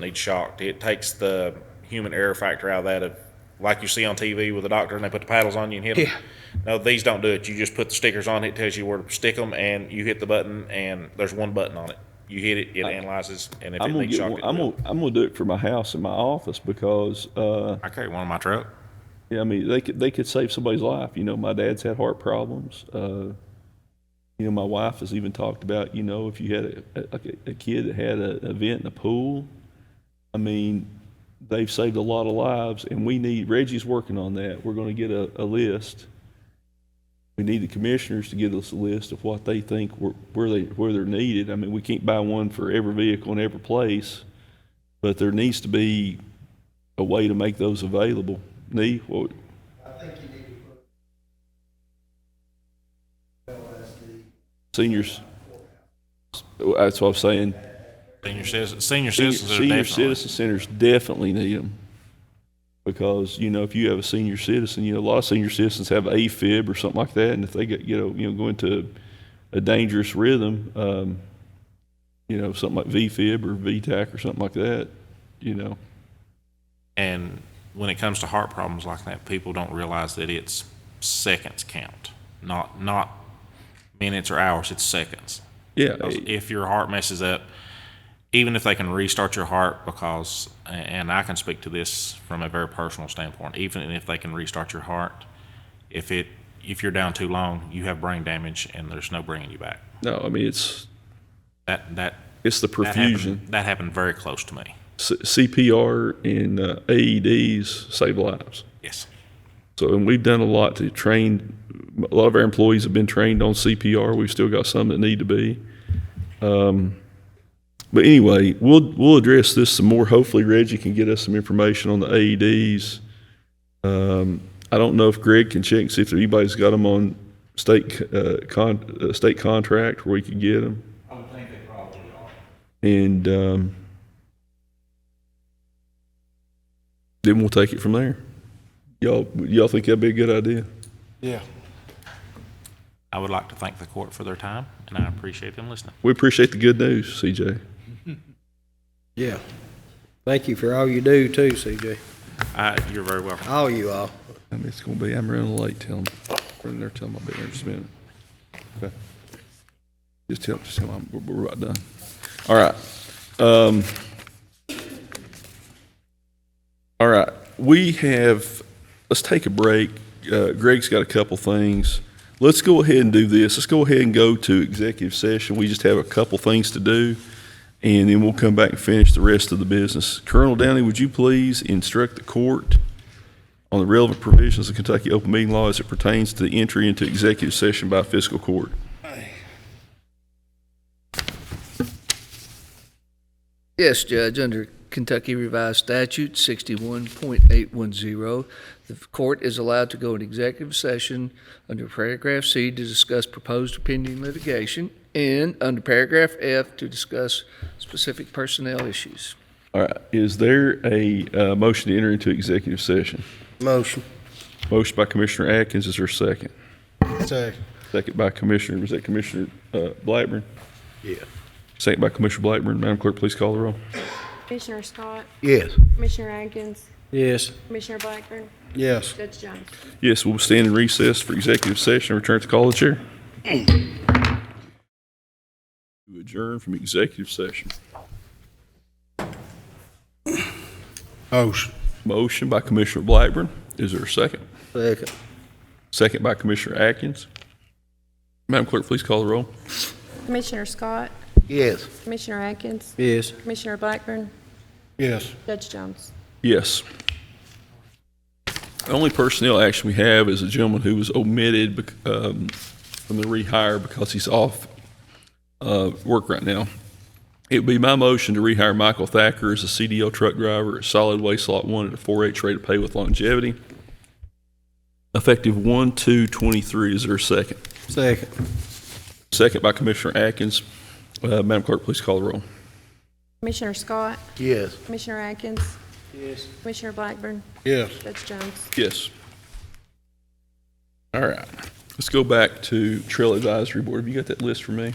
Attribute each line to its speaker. Speaker 1: need shocked. It takes the human error factor out of that of like you see on TV with a doctor and they put the paddles on you and hit them. No, these don't do it. You just put the stickers on. It tells you where to stick them, and you hit the button, and there's one button on it. You hit it, it analyzes, and if
Speaker 2: I'm
Speaker 1: it
Speaker 2: gonna,
Speaker 1: needs
Speaker 2: get
Speaker 1: shocked,
Speaker 2: one,
Speaker 1: it
Speaker 2: I'm,
Speaker 1: will.
Speaker 2: gonna, I'm gonna do it for my house and my office because uh,
Speaker 1: I carry one in my truck.
Speaker 2: yeah, I mean they could they could save somebody's life. You know, my dad's had heart problems. Uh, you know, my wife has even talked about you know if you had a, a, like a- a kid that had a- an event in a pool. I mean, they've saved a lot of lives, and we need Reggie's working on that. We're going to get a, a list. We need the commissioners to give us a list of what they think where, where they where they're needed. I mean, we can't buy one for every vehicle in every place, but there needs to be a way to make those available. Nee, what, seniors. That's what I'm saying.
Speaker 1: Senior citizens, senior
Speaker 2: Senior,
Speaker 1: citizens are
Speaker 2: senior
Speaker 1: definitely-
Speaker 2: citizen centers definitely need them because you know if you have a senior citizen, you know a lot of senior citizens have AFib or something like that, and if they get you know you know go into a dangerous rhythm, um, you know something like VFib or VTAC or something like that, you know.
Speaker 1: And when it comes to heart problems like that, people don't realize that it's seconds count, not not minutes or hours. It's seconds.
Speaker 2: Yeah,
Speaker 1: Because if your heart messes up, even if they can restart your heart, because, and I can speak to this from a very personal standpoint, even if they can restart your heart, if it, if you're down too long, you have brain damage and there's no bringing you back.
Speaker 2: no, I mean it's
Speaker 1: That, that,
Speaker 2: it's the
Speaker 1: that
Speaker 2: perfusion.
Speaker 1: happened, that happened very close to me.
Speaker 2: C- CPR and uh, AEDs save lives.
Speaker 1: Yes.
Speaker 2: So, and we've done a lot to train. A lot of our employees have been trained on CPR. We've still got some that need to be. Um, but anyway, we'll we'll address this some more. Hopefully, Reggie can get us some information on the AEDs. Um, I don't know if Greg can check and see if anybody's got them on state uh, con, uh, state contract where we could get them. I would think they probably are. And um, then we'll take it from there. Y'all, y'all think that'd be a good idea?
Speaker 3: Yeah.
Speaker 1: I would like to thank the court for their time and I appreciate them listening.
Speaker 2: We appreciate the good news, CJ.
Speaker 3: Yeah.
Speaker 4: Thank you for all you do too, CJ.
Speaker 1: Uh, you're very welcome.
Speaker 4: All you all.
Speaker 2: I mean, it's gonna be, I'm running late, tell them, running there, tell them I'll be there in just a minute. Okay. Just tell, just tell them, I'm- we're, we're about done. All right. Um, all right, we have, let's take a break. Uh, Greg's got a couple things. Let's go ahead and do this. Let's go ahead and go to executive session. We just have a couple things to do. And then we'll come back and finish the rest of the business. Colonel Downey, would you please instruct the court on the relevant provisions of Kentucky open meeting law as it pertains to the entry into executive session by fiscal court.
Speaker 4: Yes, Judge, under Kentucky Revised Statute sixty-one point eight one zero, the court is allowed to go in executive session under paragraph C to discuss proposed pending litigation and under paragraph F to discuss specific personnel issues.
Speaker 2: All right, is there a uh, motion to enter into executive session?
Speaker 4: Motion.
Speaker 2: Motion by Commissioner Atkins, is there a second?
Speaker 3: Say.
Speaker 2: Second by Commissioner, was that Commissioner uh, Blackburn?
Speaker 3: Yeah.
Speaker 2: Second by Commissioner Blackburn. Madam Clerk, please call the roll.
Speaker 5: Commissioner Scott,
Speaker 3: Yes.
Speaker 5: Commissioner Atkins,
Speaker 3: Yes.
Speaker 5: Commissioner Blackburn,
Speaker 3: Yes.
Speaker 5: Judge Jones.
Speaker 2: Yes, we'll stand in recess for executive session, return to call of the chair. To Adjourn from executive session.
Speaker 3: Motion.
Speaker 2: Motion by Commissioner Blackburn, is there a second?
Speaker 4: Second.
Speaker 2: Second by Commissioner Atkins. Madam Clerk, please call the roll.
Speaker 5: Commissioner Scott,
Speaker 3: Yes.
Speaker 5: Commissioner Atkins,
Speaker 4: Yes.
Speaker 5: Commissioner Blackburn,
Speaker 3: Yes.
Speaker 5: Judge Jones.
Speaker 2: Yes. The only personnel action we have is a gentleman who was omitted bec- um, from the rehire because he's off uh, work right now. It would be my motion to rehire Michael Thacker as a CDL truck driver at Solid Waste Lot 1 at a 4H rate of pay with longevity, effective 1/2/23. Is there a second?
Speaker 3: Second.
Speaker 2: Second by Commissioner Atkins. Uh, Madam Clerk, please call the roll.
Speaker 5: Commissioner Scott,
Speaker 3: Yes.
Speaker 5: Commissioner Atkins. Yes. Commissioner Blackburn,
Speaker 3: Yes.
Speaker 5: Judge Jones.
Speaker 2: Yes. All right. Let's go back to Trail Advisory Board. Have you got that list for me?